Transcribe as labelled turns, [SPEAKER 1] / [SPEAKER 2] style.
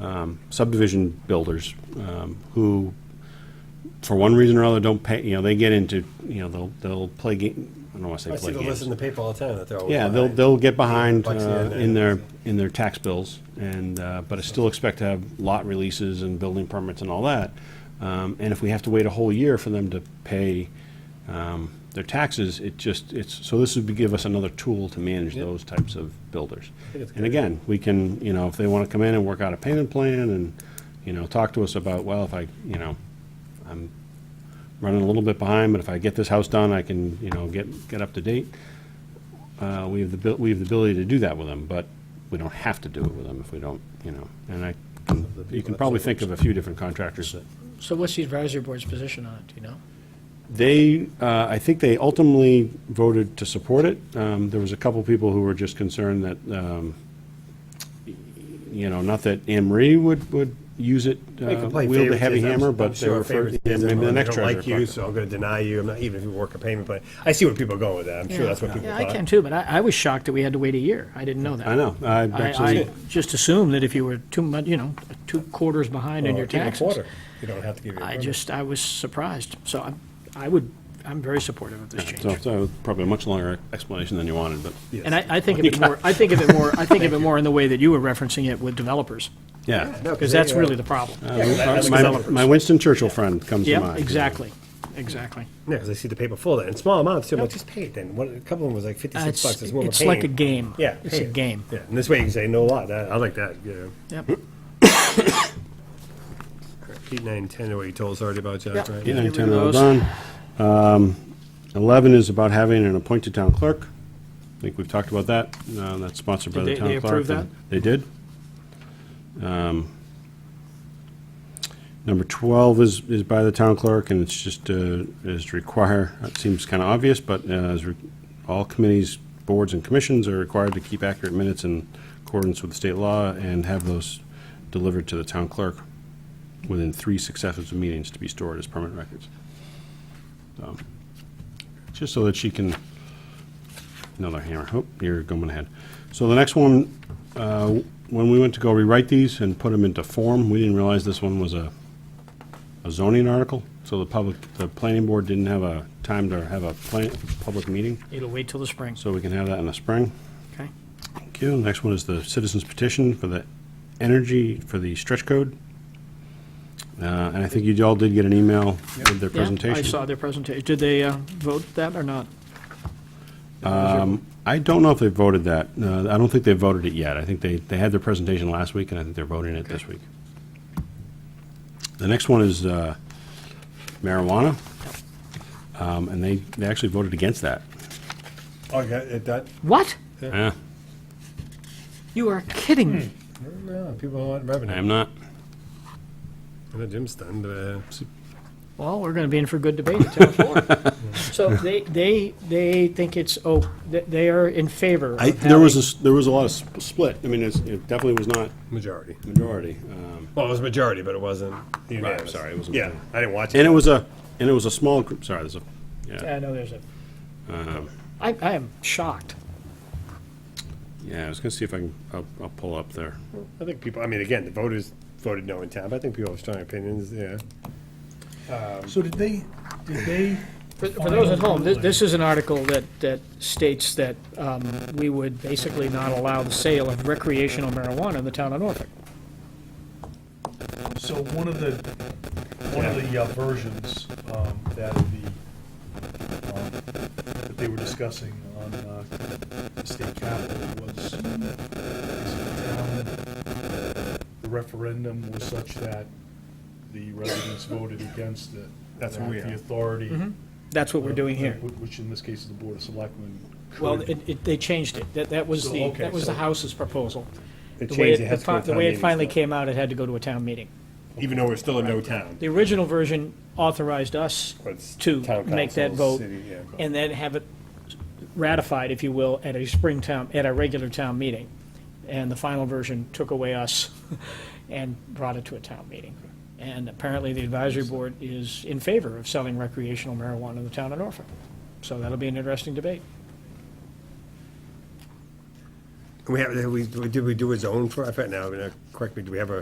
[SPEAKER 1] um, subdivision builders um, who, for one reason or other, don't pay, you know, they get into, you know, they'll, they'll play, ga- I don't want to
[SPEAKER 2] I
[SPEAKER 1] say play
[SPEAKER 2] see the list in
[SPEAKER 1] games.
[SPEAKER 2] the paper all the time that they're always.
[SPEAKER 1] Yeah, they'll,
[SPEAKER 2] behind.
[SPEAKER 1] they'll get behind
[SPEAKER 2] Bucks
[SPEAKER 1] uh,
[SPEAKER 2] in
[SPEAKER 1] in
[SPEAKER 2] there.
[SPEAKER 1] their, in their tax bills, and, uh, but I still expect to have lot releases and building permits and all that. Um, And if we have to wait a whole year for them to pay um, their taxes, it just, it's, so this would be- give us another tool to manage
[SPEAKER 2] Yep.
[SPEAKER 1] those types of builders.
[SPEAKER 2] think it's a
[SPEAKER 1] And
[SPEAKER 2] good
[SPEAKER 1] again, we can, you know, if they want to come in and work out a payment plan and, you know, talk to us about, well, if I, you know, I'm running a little bit behind, but if I get this house done, I can, you know, get, get up to date. Uh, we have the, abil- we have the ability to do that with them, but we don't have to do it with them if we don't, you know, and I, can- you can probably think of a few different contractors that
[SPEAKER 3] So what's the advisory board's position on it, do you know?
[SPEAKER 1] They, uh, I think they ultimately voted to support it. Um, There was a couple people who were just concerned that, um, you know, not that Anne Marie would, would use it,
[SPEAKER 2] They can
[SPEAKER 1] uh,
[SPEAKER 2] play
[SPEAKER 1] wield a heavy
[SPEAKER 2] favoritism.
[SPEAKER 1] hammer,
[SPEAKER 2] I'm
[SPEAKER 1] but they
[SPEAKER 2] sure
[SPEAKER 1] were, fir- yeah,
[SPEAKER 2] favoritism,
[SPEAKER 1] maybe
[SPEAKER 2] I
[SPEAKER 1] the next
[SPEAKER 2] don't
[SPEAKER 1] treasurer.
[SPEAKER 2] like you,
[SPEAKER 1] pocket.
[SPEAKER 2] so I'm going to deny you. I'm not, even if you work a payment plan. I see where people are going with that. I'm sure that's what people
[SPEAKER 3] Yeah, I can
[SPEAKER 2] thought.
[SPEAKER 3] too, but I, I was shocked that we had to wait a year. I didn't know that.
[SPEAKER 1] I know, I
[SPEAKER 3] I,
[SPEAKER 1] actually,
[SPEAKER 3] I just assumed that if you were two months, you know, two quarters behind in your
[SPEAKER 2] Well, even
[SPEAKER 3] taxes.
[SPEAKER 2] quarter, You don't have to give your.
[SPEAKER 3] I
[SPEAKER 2] permit.
[SPEAKER 3] just, I was surprised. So I, I would, I'm very supportive of this
[SPEAKER 1] so,
[SPEAKER 3] change.
[SPEAKER 1] so probably a much longer explanation than you wanted, but,
[SPEAKER 2] Yes.
[SPEAKER 3] And I, I think of it more, I think of it more, I think of it more in the way that you were referencing it with developers,
[SPEAKER 1] yeah.
[SPEAKER 2] No,
[SPEAKER 3] because
[SPEAKER 2] they,
[SPEAKER 3] that's
[SPEAKER 2] uh,
[SPEAKER 3] really the problem.
[SPEAKER 2] Yeah, well, that- that's
[SPEAKER 1] My
[SPEAKER 2] developers.
[SPEAKER 1] my Winston Churchill friend comes to
[SPEAKER 3] Yep,
[SPEAKER 1] mind.
[SPEAKER 3] exactly, exactly.
[SPEAKER 2] Yeah, because I see the paper full of it, in small amounts, too, I'm like, just pay it then, what, a couple of them was like
[SPEAKER 3] Uh,
[SPEAKER 2] fifty-six
[SPEAKER 3] It's,
[SPEAKER 2] bucks, is what we're
[SPEAKER 3] it's like a
[SPEAKER 2] paying.
[SPEAKER 3] game.
[SPEAKER 2] Yeah.
[SPEAKER 3] It's
[SPEAKER 2] pay
[SPEAKER 3] a
[SPEAKER 2] it.
[SPEAKER 3] game.
[SPEAKER 2] Yeah, and this way you can say, no lot, that, I like that, yeah.
[SPEAKER 3] Yep.
[SPEAKER 2] Eight, nine, ten are what you told us already about, Josh,
[SPEAKER 3] Yep.
[SPEAKER 2] right?
[SPEAKER 1] Eight, nine,
[SPEAKER 3] Get rid
[SPEAKER 1] ten
[SPEAKER 3] of
[SPEAKER 1] are all
[SPEAKER 3] those.
[SPEAKER 1] done. Um, Eleven is about having an appointed town clerk. I think we've talked about that. Uh, That's sponsored by
[SPEAKER 3] Did
[SPEAKER 1] the
[SPEAKER 3] they-
[SPEAKER 1] town
[SPEAKER 3] they
[SPEAKER 1] clerk.
[SPEAKER 3] approve
[SPEAKER 1] and They did. Um, Number twelve is, is by the town clerk, and it's just, uh, is to require, that seems kind of obvious, but uh, is re- all committees, boards, and commissions are required to keep accurate minutes in accordance with state law and have those delivered to the town clerk within three successive meetings to be stored as permanent records. So, Just so that she can, another hammer, oh, you're going ahead. So the next one, uh, when we went to go rewrite these and put them into form, we didn't realize this one was a a zoning article, so the public, the planning board didn't have a time to have a plan, public meeting,
[SPEAKER 3] It'll wait till the spring,
[SPEAKER 1] so we can have that in the spring.
[SPEAKER 3] okay?
[SPEAKER 1] Thank you. Next one is the citizens petition for the energy, for the stretch code. Uh, And I think you all did get an email with their
[SPEAKER 3] Yeah,
[SPEAKER 1] presentation.
[SPEAKER 3] I saw their presentation. Did they uh, vote that or not?
[SPEAKER 1] I don't know if they voted that. Uh, I don't think they voted it yet. I think they, they had their presentation last week, and I think they're voting it this week. The next one is uh, marijuana, Um, and they, they actually voted against that.
[SPEAKER 2] Oh, yeah, it, that,
[SPEAKER 3] What?
[SPEAKER 1] Yeah,
[SPEAKER 3] You are kidding me.
[SPEAKER 2] no, people don't want revenue.
[SPEAKER 1] I am not.
[SPEAKER 2] I know Jim's stunned, but.
[SPEAKER 3] Well, we're going to be in for good debate at town floor. So they, they, they think it's, oh, th- they are in favor of
[SPEAKER 1] I, there was a,
[SPEAKER 3] having-
[SPEAKER 1] s- there was a lot of sp- split. I mean, it's, it definitely was not
[SPEAKER 2] Majority.
[SPEAKER 1] majority. Um,
[SPEAKER 2] Well, it was majority, but it wasn't unanimous.
[SPEAKER 1] sorry, it wasn't-
[SPEAKER 2] Yeah, I didn't watch
[SPEAKER 1] And
[SPEAKER 2] it.
[SPEAKER 1] it was a, and it was a small group, sorry, there's a, yeah,
[SPEAKER 3] I know there's a,
[SPEAKER 1] Um.
[SPEAKER 3] I, I am shocked.
[SPEAKER 1] yeah, I was gonna see if I can, I'll, I'll pull up there.
[SPEAKER 2] I think people, I mean, again, the voters voted no in town, but I think people have strong opinions, yeah.
[SPEAKER 4] So did they, did they,
[SPEAKER 3] For for those at home, thi- this is an article that, that states that um, we would basically not allow the sale of recreational marijuana in the town of Norfolk.
[SPEAKER 4] so one of the, one of the uh, versions um, that the, um, that they were discussing on uh, the state capitol was, basically down, the referendum was such that the residents voted against it.
[SPEAKER 2] That's where we
[SPEAKER 4] That
[SPEAKER 2] are.
[SPEAKER 4] The authority.
[SPEAKER 3] That's what Mm-hmm. we're doing here.
[SPEAKER 4] wh- Which in this case is the Board of Selectmen.
[SPEAKER 3] Well,
[SPEAKER 4] could-
[SPEAKER 3] it, it, they changed it. That, that was
[SPEAKER 4] So,
[SPEAKER 3] the,
[SPEAKER 4] okay,
[SPEAKER 3] that was the
[SPEAKER 4] so-
[SPEAKER 3] House's proposal.
[SPEAKER 2] It
[SPEAKER 3] The way
[SPEAKER 2] changed,
[SPEAKER 3] it-
[SPEAKER 2] it has to go
[SPEAKER 3] the fi-
[SPEAKER 2] to town
[SPEAKER 3] The way it
[SPEAKER 2] meeting,
[SPEAKER 3] finally
[SPEAKER 2] so-
[SPEAKER 3] came out, it had to go to a town meeting.
[SPEAKER 2] Even though we're still in no town.
[SPEAKER 3] The original version authorized us
[SPEAKER 2] But it's
[SPEAKER 3] to
[SPEAKER 2] town
[SPEAKER 3] make that
[SPEAKER 2] council,
[SPEAKER 3] vote
[SPEAKER 2] city, yeah.
[SPEAKER 3] and then have it ratified, if you will, at a spring town, at a regular town meeting. And the final version took away us and brought it to a town meeting. And apparently, the advisory board is in favor of selling recreational marijuana in the town of Norfolk. So that'll be an interesting debate.
[SPEAKER 2] We have, have we, did we do a zone for, I forget now, I mean, uh, correct me, do we have a